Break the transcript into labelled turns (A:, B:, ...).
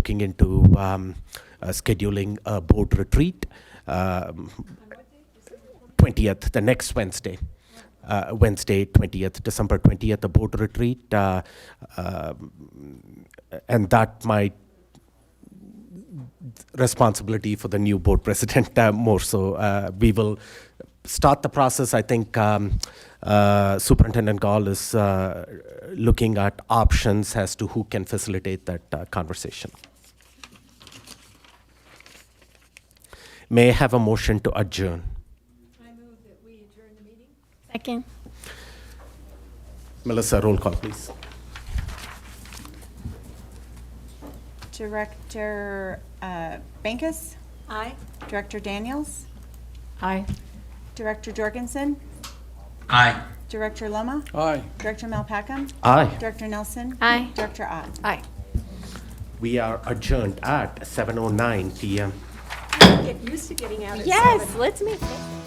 A: looking into um, uh, scheduling a board retreat. Um, 20th, the next Wednesday. Uh, Wednesday, 20th, December 20th, a board retreat. Uh, um, and that might responsibility for the new board president uh, more so. Uh, we will start the process. I think um, uh, Superintendent Gall is uh, looking at options as to who can facilitate that uh, conversation. May I have a motion to adjourn?
B: I move that we adjourn the meeting.
C: Second.
A: Melissa, roll call, please.
D: Director uh, Bankus,
B: Aye.
D: Director Daniels,
C: Aye.
D: Director Jorgensen,
E: Aye.
D: Director Loma,
E: Aye.
D: Director Malpacum,
A: Aye.
D: Director Nelson.
C: Aye.
D: Director Ott.
C: Aye.
A: We are adjourned at 7:09 p.m.
B: Get used to getting out at
C: Yes, let's make it.